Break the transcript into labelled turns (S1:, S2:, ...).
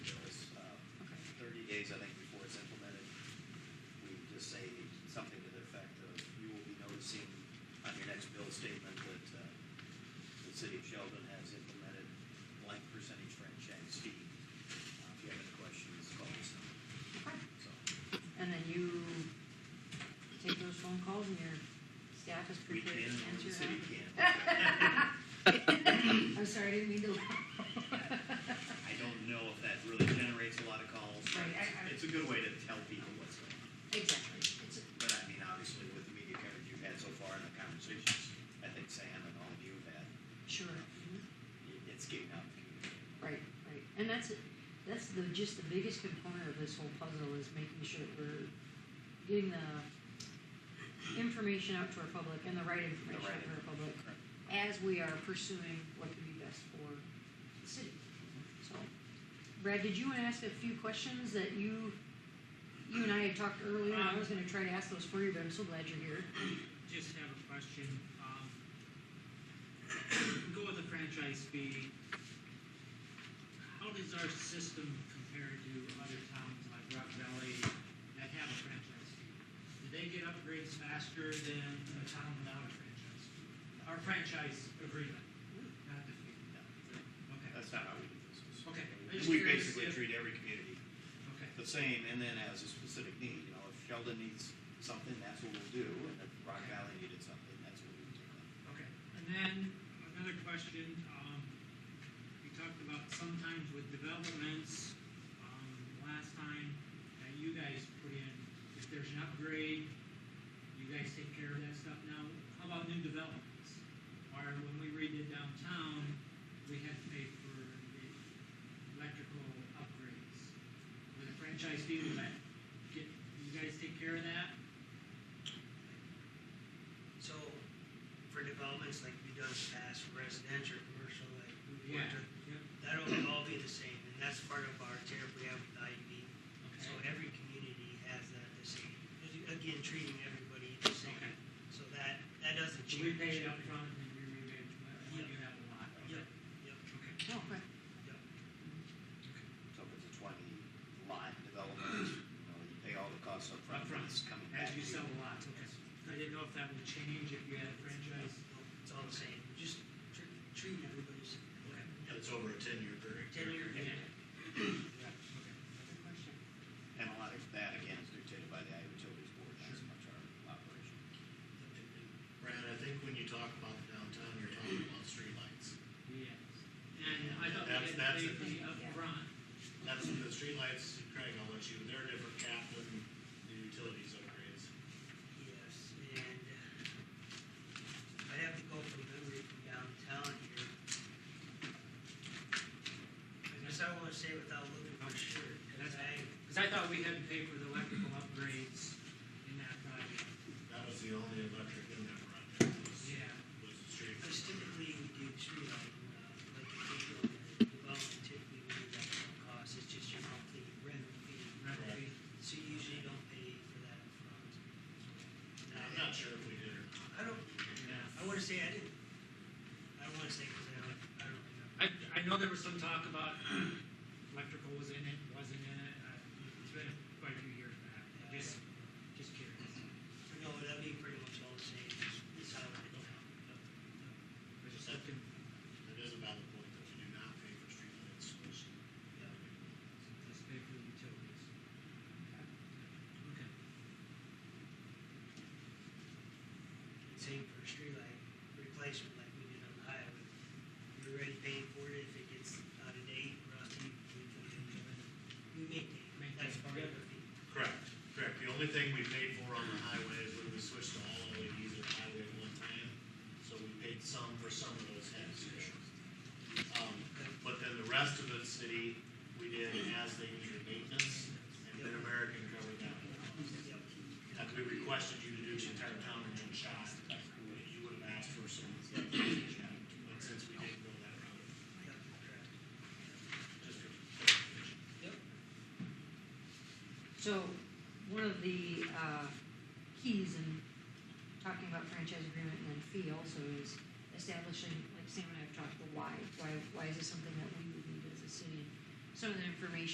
S1: uh, I think before it's implemented, we just say something to the effect of, you will be noticing on your next bill statement that, uh, the city of Sheldon has implemented blank percentage franchise fee. Uh, If you have any questions, call us. So,
S2: And then you take those phone calls and your staff is
S1: we
S2: prepared to
S1: can, or
S2: answer.
S1: the city can.
S2: them. I'm sorry, I didn't mean to. laugh.
S1: I don't know if that really generates a lot of calls, but
S2: Right, I- I-
S1: it's a good way to tell people what's going on.
S2: Exactly. It's a-
S1: But I mean, obviously, with the media coverage you've had so far and the conversations, I think Sam and all of you have had,
S2: Sure. Mhm.
S1: i- it's getting out. in the community.
S2: Right, right. And that's, it. that's the, just the biggest component of this whole puzzle is making sure that we're getting the information out to our public and the right information
S1: right
S2: out to our public
S1: Correct.
S2: as we are pursuing what could be best for the city. So, Brad, did you want to ask a few questions that you, you and I had talked earlier, and I was gonna try to ask those for you, but I'm so glad you're here.
S3: Just have a question. Um, go with the franchise fee. How does our system compare to other towns like Rock Valley that have a franchise fee? Do they get upgrades faster than a town without a franchise fee? Our franchise agreement, not the fee. Okay,
S1: That's not how we do business.
S3: Okay. I just
S1: We
S3: curious
S1: basically
S3: if-
S1: treat every community
S3: okay.
S1: the same and then as a specific need, you know, if Sheldon needs something, that's what we'll do, and if Rock Valley needed something, that's what we would do.
S3: Okay, and then another question, um, you talked about sometimes with developments, um, last time that you guys put in, if there's an upgrade, you guys take care of that stuff now. How about new developments? Or when we redid downtown, we had to pay for the electrical upgrades. With a franchise fee, would that get, you guys take care of that?
S4: So for developments like we've done in the past, for residential, commercial, like we want to,
S3: Yep.
S4: that'll all be the same. And that's part of our tariff we have with IUB. So
S3: Okay.
S4: every community has that the same. Again, treating everybody the same.
S3: Okay.
S4: So that, that doesn't
S3: So
S4: change.
S3: we paid it up front and then we rebate it when you have a lot.
S4: Yep,
S3: Okay.
S2: Oh, okay.
S4: yep.
S1: So if it's a twenty lot development, you know, you pay all the costs upfront,
S3: Upfront,
S1: it's coming back
S3: As
S1: to
S3: you sell
S1: you.
S3: a lot, okay. I didn't know if that would change if you had a franchise.
S4: Nope, It's all the same. Just tr- treating everybody the same.
S3: Okay.
S5: It's over a ten-year period.
S4: Ten-year.
S3: Okay.
S2: Good question.
S1: And a lot of that, again, is dictated by the Iowa Utilities Board, not so much our operation.
S5: Brad, I think when you talk about the downtown, you're talking about streetlights.
S3: Yes. And I thought we had
S5: That's- that's
S3: paid the
S5: it.
S3: upfront.
S5: That's the streetlights, Craig, I'll let you, they're a different cap than the utilities upgrades.
S4: Yes, and I have to go from memory from downtown here. I guess I wanna say without looking for sure, cause I,
S3: Because I thought we had to pay for the electrical upgrades in that project.
S5: That was the only electric in that project, was,
S3: Yeah.
S5: was the street.
S4: cause typically we do tree lighting, uh, like you think of the development, typically we do that at no cost, it's just your monthly rental fee.
S3: Remember we,
S4: So you usually don't pay for that upfront. And
S5: I'm
S4: I,
S5: not sure if we did or not.
S4: I don't,
S3: yeah.
S4: I wanna say I didn't, I don't wanna say, cause I don't, I don't remember.
S3: I, I know there was some talk about electrical was in it, wasn't in it. I- It's been quite a few years back. Just, just curious.
S4: No, that'd be pretty much all the same, is how it is
S3: I
S4: now.
S3: was just looking.
S5: It is a valid point that we do not pay for streetlights, which.
S3: Let's pay for the utilities. Okay.
S4: Same for a streetlight replacement like we did on the highway. We're already paying for it if it gets out of date, rusty, we put it in. We maintain, that's
S3: Maintain,
S4: part of
S3: yeah.
S4: the fee.
S5: Correct, correct. The only thing we paid for on the highway is when we switched to all LEDs at highway at one time, so we paid some for some of those heads. Um, but then the rest of the city, we did as they needed maintenance, and Mid-American covered that.
S4: Yep.
S5: Had we requested you to do the entire town in one shot, you would have asked for some, but since we didn't go that route,
S4: Yep, correct.
S5: just for.
S4: Yep.
S2: So, one of the uh, keys in talking about franchise agreement and then fee also is establishing, like Sam and I have talked, the why. Why, why is this something that we would need as a city? Some of the information